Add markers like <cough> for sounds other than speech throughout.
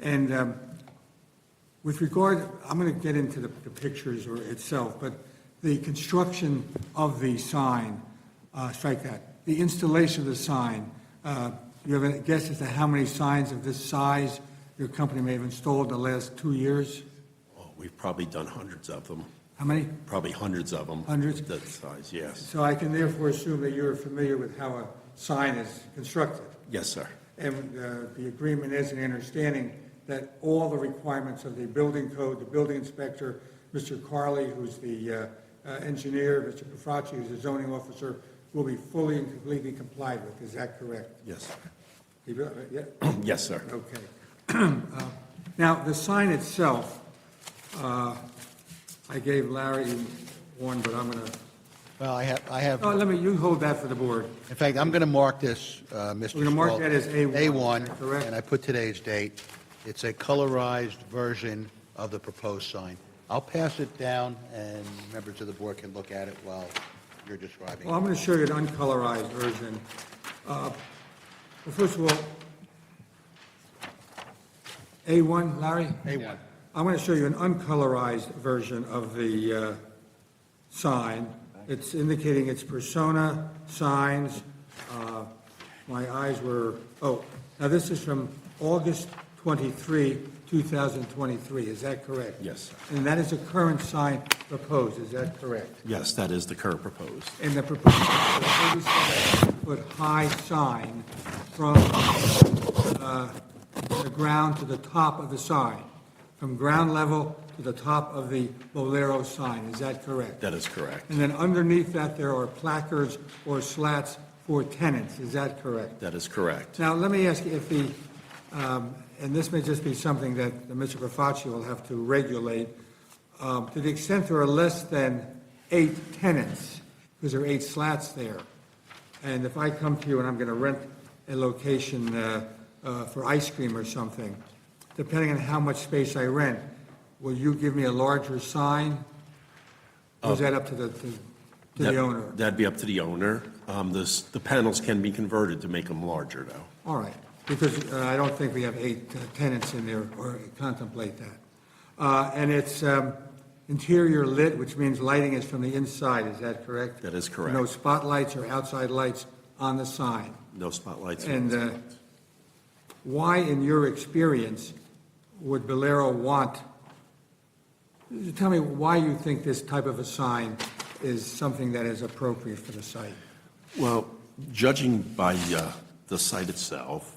And um, with regard, I'm going to get into the the pictures or itself, but the construction of the sign, uh, strike that, the installation of the sign, uh, you have a guess as to how many signs of this size your company may have installed in the last two years? Oh, We've probably done hundreds of them, How many? probably hundreds of them. Hundreds? That size, yes. So I can therefore assume that you're familiar with how a sign is constructed. Yes, sir. And uh, the agreement is an understanding that all the requirements of the building code, the building inspector, Mr. Carley, who's the uh, uh, engineer, Mr. Profacci, who's the zoning officer, will be fully and completely complied with. Is that correct? Yes. You feel- uh, Yeah? <clears throat> Yes, sir. Okay. Uh, Now, the sign itself, uh, I gave Larry one, but I'm going to, Well, I have, I have, oh, let me, you hold that for the board. in fact, I'm going to mark this, uh, Mr. We're gonna mark Schwalb, that as A1, is that correct? A1, and I put today's date. It's a colorized version of the proposed sign. I'll pass it down, and members of the board can look at it while you're describing. Well, I'm going to show you an uncolorized version. Uh, Well, first of all, A1, Larry? A1. I'm going to show you an uncolorized version of the uh, sign. It's indicating its persona, signs. uh, My eyes were, oh, now this is from August 23, 2023, is that correct? Yes, sir. And that is a current sign proposed, is that correct? Yes, that is the current proposed. and the proposed 37-foot-high sign from uh, the ground to the top of the sign, from ground level to the top of the Bolero sign, is that correct? That is correct. And then underneath that, there are placards or slats for tenants, is that correct? That is correct. Now, let me ask you if the, um, and this may just be something that Mr. Profacci will have to regulate, um, to the extent there are less than eight tenants, because there are eight slats there, and if I come to you and I'm going to rent a location uh, uh, for ice cream or something, depending on how much space I rent, will you give me a larger sign? Or is that up to the, to to That- the owner? That'd be up to the owner. Um, this, the panels can be converted to make them larger, though. All right, because uh, I don't think we have eight uh, tenants in there or contemplate that. Uh, And it's um, interior lit, which means lighting is from the inside, is that correct? That is correct. No spotlights or outside lights on the sign. No spotlights. And uh, why, in your experience, would Bolero want, tell me why you think this type of a sign is something that is appropriate for the site? Well, judging by uh, the site itself,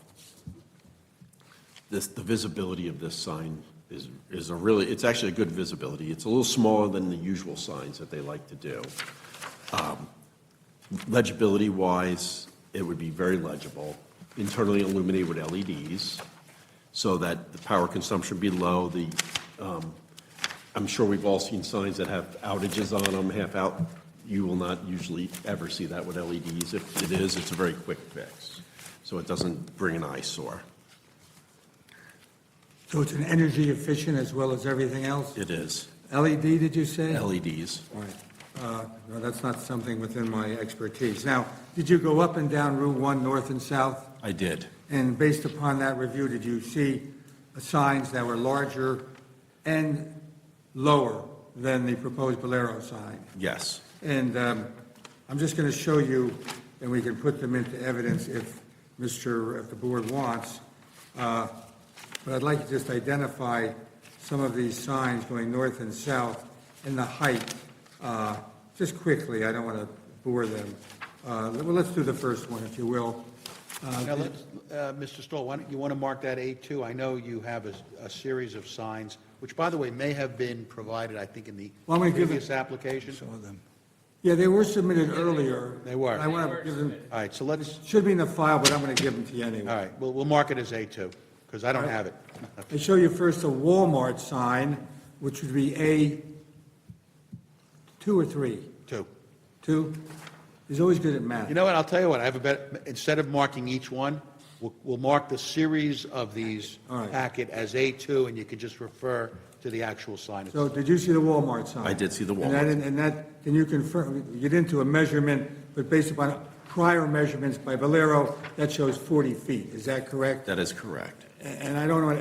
this, the visibility of this sign is, is a really, it's actually a good visibility. It's a little smaller than the usual signs that they like to do. Um, Legibility-wise, it would be very legible, internally illuminated with LEDs, so that the power consumption be low, the, um, I'm sure we've all seen signs that have outages on them, half out. You will not usually ever see that with LEDs. If it is, it's a very quick fix, so it doesn't bring an eyesore. So it's an energy efficient as well as everything else? It is LED, E did you E say? LEDs. All right. Uh, No, that's not something within my expertise. Now, did you go up and down Route 1, north and south? I did. And based upon that review, did you see signs that were larger and lower than the proposed Bolero sign? Yes. And um, I'm just going to show you, and we can put them into evidence if Mr., if the board wants. Uh, But I'd like to just identify some of these signs going north and south and the height, uh, just quickly. I don't want to bore them. Uh, Well, let's do the first one, if you will. Now, let's, uh, Mr. Stoll, why don't, you want to mark that A2? I know you have a, a series of signs, which, by the way, may have been provided, I think, in the Well, I'm gonna give it- previous application. Yeah, they were submitted earlier. They were. I want to give them, All right, so let's, should be in the file, but I'm going to give them to you anyway. all right, we'll, we'll mark it as A2, because I don't have it. <laughs> I show you first a Walmart sign, which would be A two or three? Two. Two? He's always good at You math. know what, I'll tell you what, I have a better, instead of marking each one, we'll, we'll mark the series of these All right. packet as A2, and you can just refer to the actual sign. So did you see the Walmart sign? I did see the And that, Walmart. and that, can you confirm, you didn't do a measurement, but based upon prior measurements by Valero, that shows 40 feet, is that correct? That is correct. And I don't know